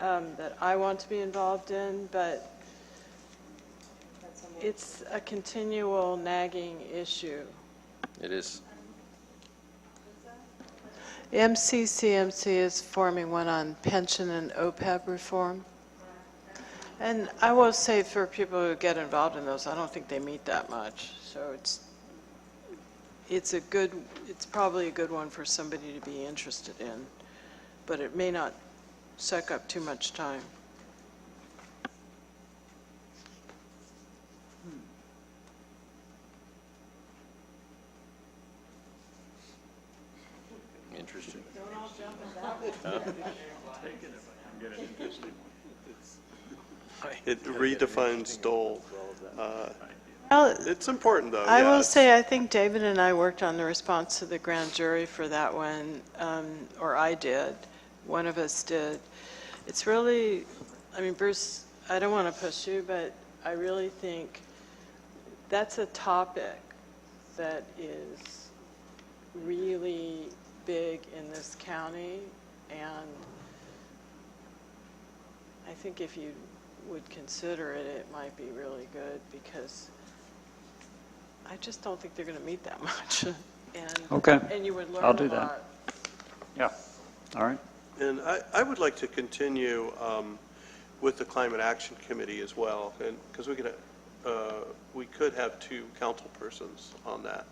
um, that I want to be involved in, but That's on the- it's a continual nagging issue. It is, MCCMC is forming one on pension and OPEB reform. And I will say for people who get involved in those, I don't think they meet that much. So it's, it's a good, it's probably a good one for somebody to be interested in, but it may not suck up too much time. interesting. It redefines dole. Uh, Well, It's important, though. I yeah, will it's- say, I think David and I worked on the response to the grand jury for that one, um, or I did, one of us did. It's really, I mean, Bruce, I don't want to push you, but I really think that's a topic that is really big in this county, and I think if you would consider it, it might be really good, because I just don't think they're going to meet that much. And- Okay. And you would learn I'll a do that. lot. Yeah, all right. And I, I would like to continue um, with the Climate Action Committee as well, and, because we could, uh, we could have two council persons on that,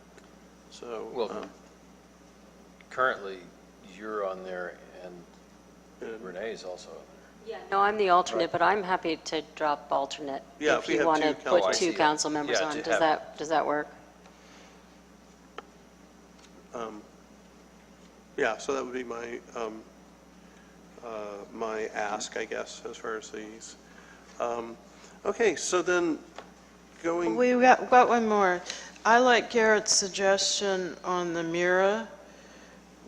so. um, Well, currently, you're on there and um, and- Renee's also on Yeah, no, I'm the alternate, but I'm happy to drop alternate Yeah, if if we you have want two to council- Oh, I put see. two council members Yeah, on. to Does have- that, does that work? Yeah, so that would be my, um, uh, my ask, I guess, as far as these. Um, Okay, so then going. We got, got one more. I like Garrett's suggestion on the Mira,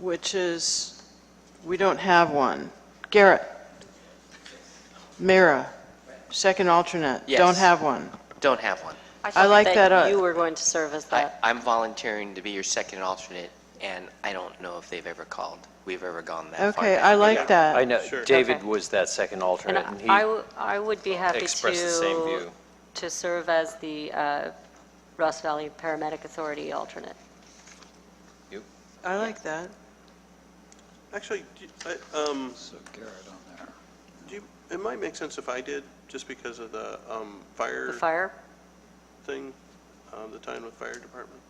which is, we don't have one. Garrett, Mira, second alternate. Yes. Don't have one. Don't have one. I thought like that, uh, You were going to serve as I, that. I'm volunteering to be your second alternate, and I don't know if they've ever called. We've ever gone that far. Okay, back. I like I that. know, Sure. David Okay. was that second And alternate, and I- I, he w- I would be happy to. expressed the same view. To serve as the uh, Ross Valley Paramedic Authority alternate. I like that. Actually, do- I- um, So Garrett on there. do you, it might make sense if I did, just because of the um, The fire fire? thing, um, the time with fire department.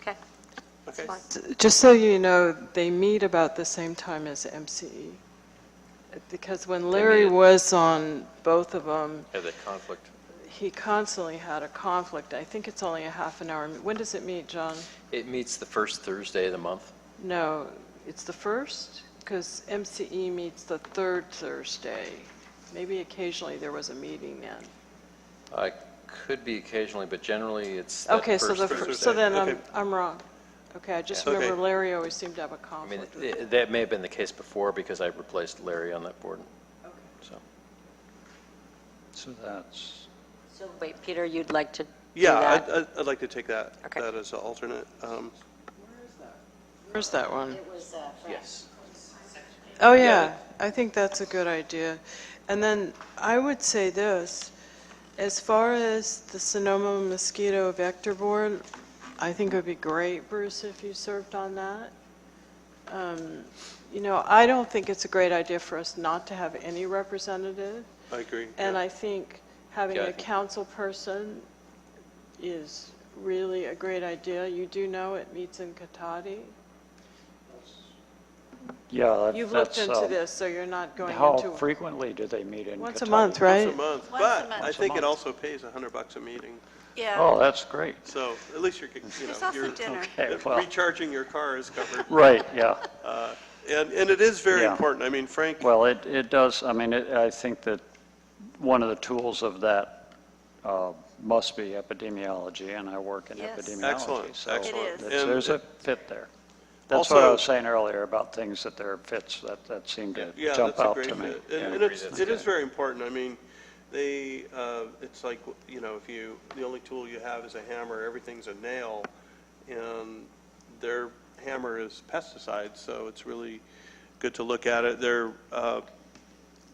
Okay, Okay, fine. Just so you know, they meet about the same time as MCE. Because when Larry at- was on both of them, had that conflict. he constantly had a conflict. I think it's only a half an hour. When does it meet, John? It meets the first Thursday of the month. No, it's the first, because MCE E meets the third Thursday. Maybe occasionally there was a meeting then. I could be occasionally, but generally, it's that Okay, so first the, fir- so Thursday. then I'm, Okay. I'm wrong. Okay, I just Yeah. remember Okay. Larry always seemed to have a I mean, conflict. with th- that may have been the case before, because I replaced Larry on that board, so. So that's, So wait, Peter, you'd like to do yeah, that? I'd- I'd, I'd like to take that, Okay. that as an alternate. Um, Where's that one? was uh, Fran. Yes. Oh, yeah, I think that's a good idea. And then I would say this, as far as the Sonoma mosquito vector board, I think it would be great, Bruce, if you served on that. Um, You know, I don't think it's a great idea for us not to have any representative, I agree. and yeah. I think having Yeah, a I think- council person is really a great idea. You do know it meets in Katati. yeah, that- that's. You've looked into um, this, so you're not going How into it. frequently do they meet in Catan? Once a month, right? Once a month, Once a but month. I Once a think it month. also pays 100 bucks a meeting, Yeah, Oh, that's great. so at least you're, you there's know, also you're dinner. Okay, well, recharging your car is covered. right, yeah. And, and it is very Yeah. important. I mean, Frank, Well, it, it does, I mean, it- I think that one of the tools of that uh, must be epidemiology, and I work in Yes. epidemiology. Excellent, so excellent. It is. it's- There's a And- fit there. That's what I Also- was saying earlier about things that there are fits, that, that seemed to yeah, jump that's a out great to me. fit. Yeah. And and it's, it is very important. I mean, they, uh, it's like, you know, if you, the only tool you have is a hammer, everything's a nail, and their hammer is pesticides, so it's really good to look at it. Their, uh,